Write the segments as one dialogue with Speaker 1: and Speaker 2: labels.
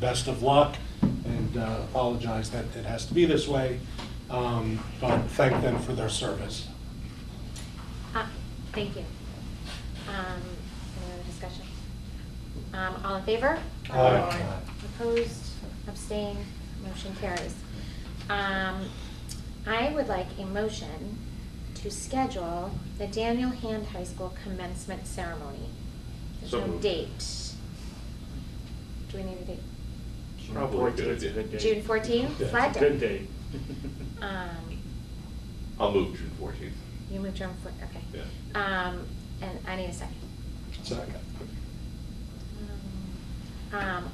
Speaker 1: best of luck and uh, apologize that it has to be this way, um, but thank them for their service.
Speaker 2: Uh, Thank you. Um, Any other discussion? Um, All in favor?
Speaker 1: Aye.
Speaker 2: Opposed, abstained, motion carries. Um, I would like a motion to schedule the Daniel Hand High School commencement ceremony. There's
Speaker 3: So
Speaker 2: no
Speaker 3: moved.
Speaker 2: date. Do we need a date?
Speaker 3: Probably a good
Speaker 4: 14th 's a
Speaker 3: idea.
Speaker 4: good date.
Speaker 2: June 14th?
Speaker 4: Yeah, it's a
Speaker 2: Flag Day.
Speaker 4: Good date.
Speaker 2: Um,
Speaker 3: I'll move June fourteenth.
Speaker 2: You moved your, okay.
Speaker 3: Yeah.
Speaker 2: Um, And I need a second.
Speaker 1: Second.
Speaker 2: Um,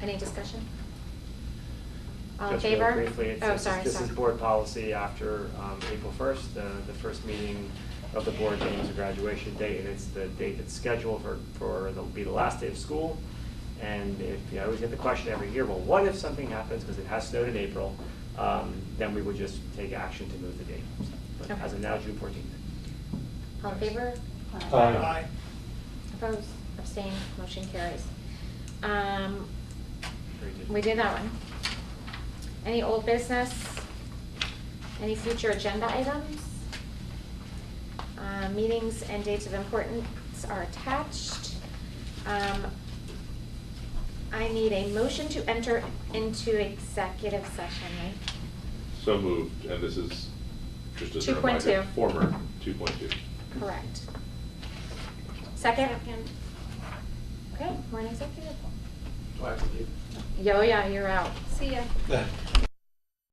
Speaker 2: Any discussion? All in
Speaker 4: Just really
Speaker 2: favor?
Speaker 4: Briefly, it's-
Speaker 2: Oh,
Speaker 4: this is-
Speaker 2: sorry,
Speaker 4: this
Speaker 2: sorry.
Speaker 4: is board policy after um, April 1st, the, the first meeting of the board names a graduation date, and it's the date that's scheduled for, for, it'll be the last day of school. And if, I always get the question every year, well, what if something happens, because it has snowed in April, um, then we would just take action to move the date. So, But as of
Speaker 2: Okay.
Speaker 4: now, June 14th.
Speaker 2: All in favor?
Speaker 1: Aye.
Speaker 2: Opposed, abstained, motion carries. Um,
Speaker 4: Very good.
Speaker 2: We did that one. Any old business? Any future agenda items? Uh, Meetings and dates of importance are attached. Um, I need a motion to enter into executive session, right?
Speaker 3: So moved, and this is just as a
Speaker 2: 2.2.
Speaker 3: reminder, former two point two.
Speaker 2: Correct. Second? Okay, we're in executive.
Speaker 5: Do I have to leave?
Speaker 2: Yo, yeah, you're out.
Speaker 6: See ya.
Speaker 1: Yeah.